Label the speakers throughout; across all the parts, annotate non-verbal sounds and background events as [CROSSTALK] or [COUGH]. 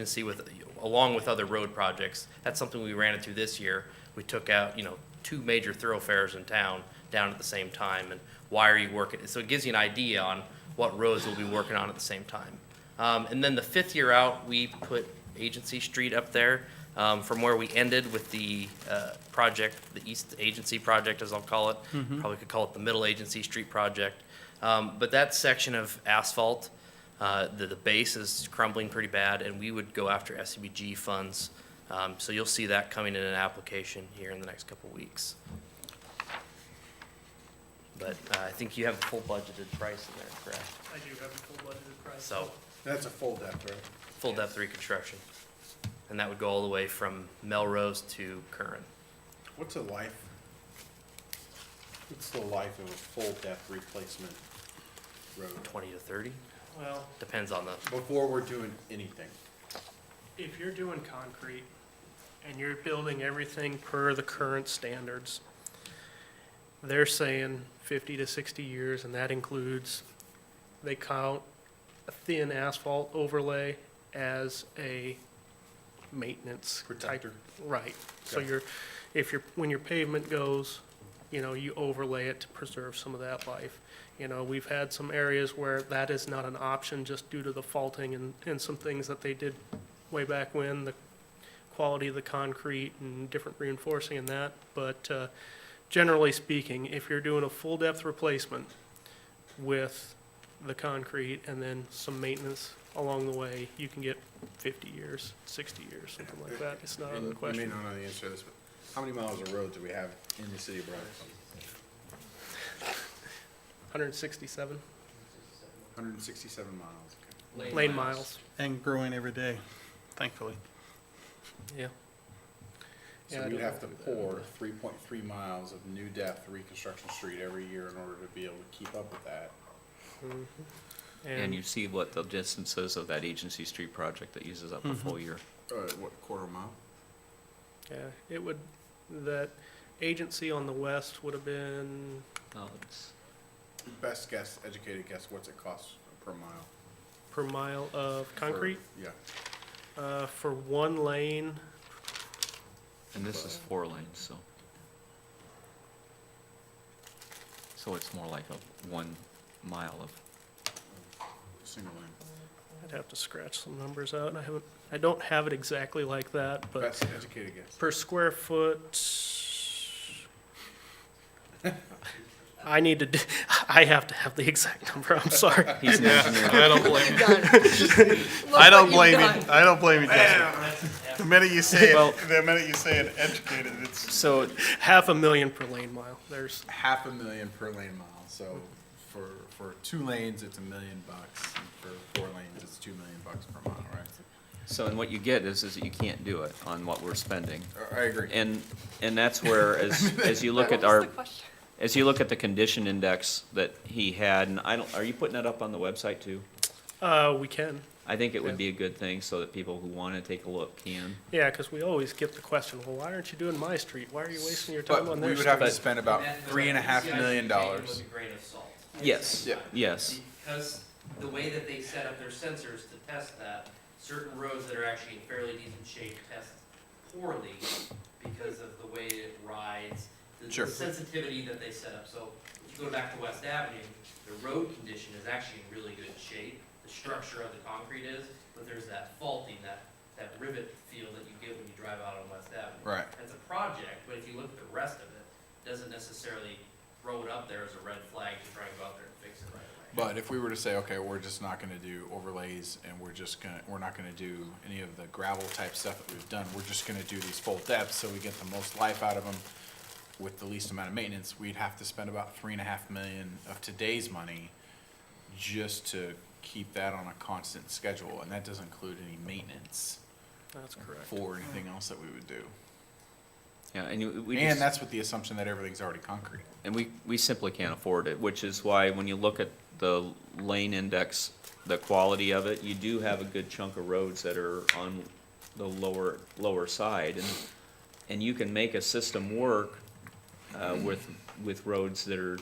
Speaker 1: and see with, along with other road projects. That's something we ran into this year. We took out, you know, two major thoroughfares in town down at the same time, and why are you working? So it gives you an idea on what roads we'll be working on at the same time. Um, and then the fifth year out, we put Agency Street up there, um, from where we ended with the, uh, project, the East Agency Project, as I'll call it. Probably could call it the Middle Agency Street Project. Um, but that section of asphalt, uh, the, the base is crumbling pretty bad, and we would go after SCBG funds. Um, so you'll see that coming in an application here in the next couple weeks. But uh, I think you have a full budgeted price in there, correct?
Speaker 2: I do have a full budgeted price.
Speaker 1: So,
Speaker 3: That's a full depth, right?
Speaker 1: full depth reconstruction. And that would go all the way from Melrose to Curran.
Speaker 3: What's a life? What's the life of a full depth replacement road?
Speaker 1: twenty to thirty,
Speaker 2: Well,
Speaker 1: depends on the,
Speaker 3: Before we're doing anything.
Speaker 2: if you're doing concrete and you're building everything per the current standards, they're saying fifty to sixty years, and that includes, they count a thin asphalt overlay as a maintenance. type-
Speaker 3: Protector.
Speaker 2: Right, so
Speaker 3: Okay.
Speaker 2: you're, if you're, when your pavement goes, you know, you overlay it to preserve some of that life. You know, we've had some areas where that is not an option just due to the faulting and, and some things that they did way back when, the quality of the concrete and different reinforcing and that. But uh, generally speaking, if you're doing a full-depth replacement with the concrete and then some maintenance along the way, you can get 50 years, 60 years, something like that. It's not out of the
Speaker 3: And You may
Speaker 2: question.
Speaker 3: not know the answer to this, but how many miles of road do we have in the city of Brownsville?
Speaker 2: 167
Speaker 3: Hundred and sixty-seven miles, okay.
Speaker 2: lane miles.
Speaker 4: and growing every day, thankfully.
Speaker 2: Yeah. Yeah, I
Speaker 3: So we'd
Speaker 2: don't
Speaker 3: have to
Speaker 2: know.
Speaker 3: pour three point three miles of new depth reconstruction street every year in order to be able to keep up with that.
Speaker 2: Mm-hmm.
Speaker 5: And you see what the distance is of that agency street project that uses up a full year.
Speaker 3: Uh, what, quarter mile?
Speaker 2: Yeah, it would, that agency on the west would have been,
Speaker 5: No, it's
Speaker 3: Best guess, educated guess, what's it cost per mile?
Speaker 2: per mile of
Speaker 3: for-
Speaker 2: concrete,
Speaker 3: Yeah,
Speaker 2: uh, for one lane,
Speaker 5: And this is four lanes, so. So it's more like a one mile of,
Speaker 3: single lane.
Speaker 2: I'd have to scratch some numbers out, I haven't, I don't have it exactly like that, but
Speaker 3: Best educated guess.
Speaker 2: per square foot. I need to, d- I have to have the exact number, I'm sorry.
Speaker 5: he's an engineer.
Speaker 4: I don't blame you. I don't blame you, I don't blame you, Justin. The minute you say
Speaker 5: [LAUGHS] Well-
Speaker 4: it, the minute you say it educated, it's,
Speaker 5: So
Speaker 2: Half a million per lane mile, there's,
Speaker 3: half a million per lane mile, so for, for two lanes, it's a million bucks, and for four lanes, it's two million bucks per mile, right?
Speaker 5: So, and what you get is, is that you can't do it on what we're spending.
Speaker 3: I agree.
Speaker 5: And, and that's where, as, as you look at our, as you look at the condition index that he had, and I don't, are you putting that up on the website too?
Speaker 2: uh, we can.
Speaker 5: I think it would be a good thing so that people who want to take a look can.
Speaker 2: Yeah, because we always get the question, well, why aren't you doing my street? Why are you wasting your time
Speaker 3: But
Speaker 2: on
Speaker 3: we
Speaker 2: their
Speaker 3: would
Speaker 2: street?
Speaker 3: have to spend about Uh, three and a half million dollars.
Speaker 5: Yes,
Speaker 3: Yeah.
Speaker 5: yes.
Speaker 1: Because the way that they set up their sensors to test that, certain roads that are actually in fairly decent shape test poorly because of the way it rides, the-
Speaker 3: Sure.
Speaker 1: the sensitivity that they set up. So if you go back to West Avenue, the road condition is actually in really good shape. The structure of the concrete is, but there's that faulting, that, that rivet feel that you get when you drive out on West Avenue.
Speaker 3: Right.
Speaker 1: That's a project, but if you look at the rest of it, it doesn't necessarily throw it up there as a red flag to try and go out there and fix it right away.
Speaker 3: But if we were to say, okay, we're just not gonna do overlays, and we're just gonna, we're not gonna do any of the gravel type stuff that we've done, we're just gonna do these full depths, so we get the most life out of them with the least amount of maintenance, we'd have to spend about three and a half million of today's money just to keep that on a constant schedule, and that doesn't include any maintenance
Speaker 2: That's correct.
Speaker 3: for anything else that we would do.
Speaker 5: Yeah, and you- we
Speaker 3: And
Speaker 5: just,
Speaker 3: that's with the assumption that everything's already concrete.
Speaker 5: and we, we simply can't afford it, which is why when you look at the lane index, the quality of it, you do have a good chunk of roads that are on the lower, lower side. And, and you can make a system work, uh, with, with roads that are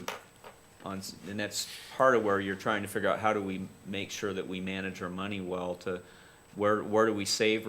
Speaker 5: on, s- and that's part of where you're trying to figure out how do we make sure that we manage our money well to Where, where do we save